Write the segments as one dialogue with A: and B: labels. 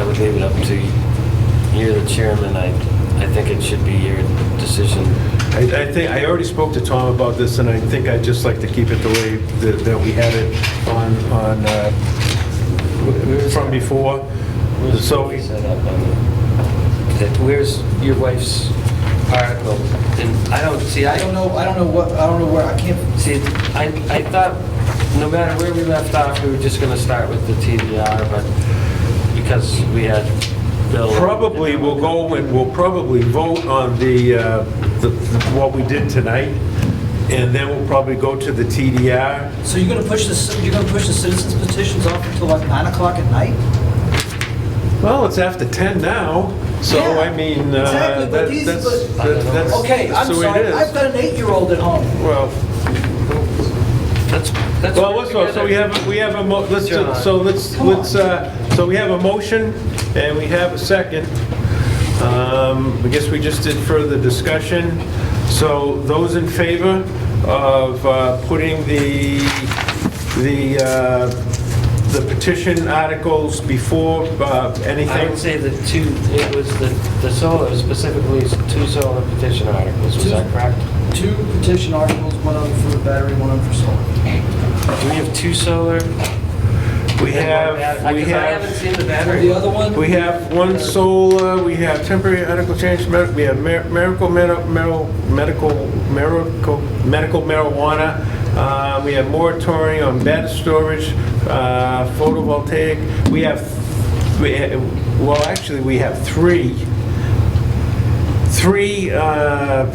A: leave it up to you're the chairman. I, I think it should be your decision.
B: I, I think, I already spoke to Tom about this, and I think I'd just like to keep it the way that, that we had it on, on, uh, from before. So,
A: Set up on the- that- Where's your wife's article? And I don't, see, I
C: I
A: don't
C: don't
A: know,
C: know, I don't know what, I don't know where, I can't,
A: see, I, I thought, no matter where we left off, we were just gonna start with the TDR, but because we had Bill.
B: probably we'll go and we'll probably vote on the, uh, the, what we did tonight, and then we'll probably go to the TDR.
C: so you're gonna push the, ci- you're gonna push the citizens petitions off until like nine o'clock at night?
B: Well, it's after 10 now, so
C: Yeah,
B: I mean,
C: exactly,
B: uh,
C: but
B: that-
C: these-
B: that's,
C: but-
B: that- that's.
C: Okay, I'm
B: that's the way it
C: sorry,
B: is.
C: I've got an eight-year-old at home.
B: Well.
A: That's, that's.
B: Well, let's, go. so we have, we have a, mo- let's,
A: John.
B: so let's,
C: Come on.
B: let's, uh, so we have a motion, and we have a second. Um, I guess we just did further discussion. So those in favor of uh, putting the, the, uh, the petition articles before
A: I
B: uh,
A: would
B: anything?
A: say the two, it was the, the solar, specifically two solar petition articles, was that correct?
C: Two petition articles, one on for the battery, one on for solar.
A: Do we have two solar?
B: We have, we
A: Because I haven't
B: have,
A: seen the
C: And the
A: battery.
C: other one?
B: we have one solar, we have temporary article change, med- we have mer- miracle, medi- mero- medical, miracle, medical marijuana, uh, we have moratorium on battery storage, uh, photovoltaic, we have, we ha- well, actually, we have three, three, uh,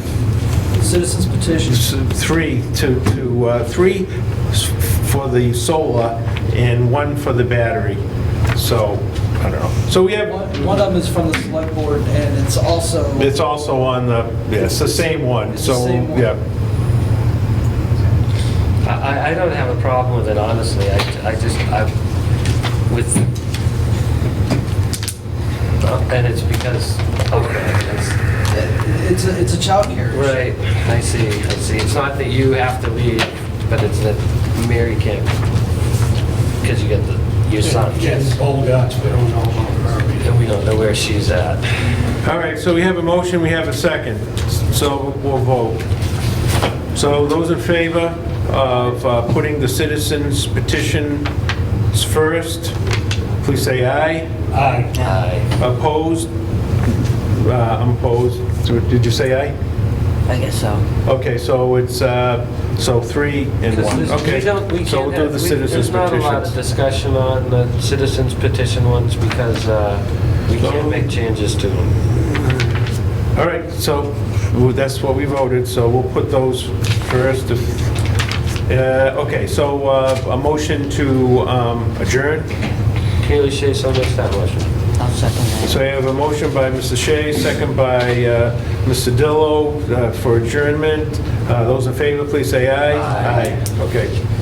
C: Citizens petitions.
B: s- three to, to, uh, three s- for the solar and one for the battery. So, I don't know. So we have,
C: One one of them is from the select board, and it's also,
B: it's also on the, yeah, it's the same one,
C: It's the
B: so,
C: same one.
B: yeah.
A: I, I- I don't have a problem with it, honestly, I, I just, I, with, and it's because, oh, okay, that's,
C: it's a, it's a childcare issue.
A: right, I see, I see. It's not that you have to leave, but it's that Mary can't, because you got the, your son,
D: Jen's old guts, we don't know about her.
A: and we don't know where she's at.
B: All right, so we have a motion, we have a second, so we'll vote. So those in favor of uh, putting the citizens petitions first, please say aye.
D: Aye.
A: Aye.
B: Opposed? Uh, I'm opposed. So Did you say aye?
E: I guess so.
B: Okay, so it's, uh, so three and one, okay.
A: We don't, we
B: So
A: can't
B: we'll do
A: have-
B: the
A: we-
B: citizens
A: There's not a lot of
B: petitions.
A: discussion on the citizens petition ones because uh, we can't make changes to them.
B: All right, so well, that's what we voted, so we'll put those first. if- uh, Okay, so uh, a motion to um, adjourn.
A: Kaylee Shea, so makes that motion.
E: I'll second that.
B: So I have a motion by Mr. Shea, second by uh, Mr. Dillo uh, for adjournment. Uh, Those in favor, please say aye.
A: Aye.
B: Okay.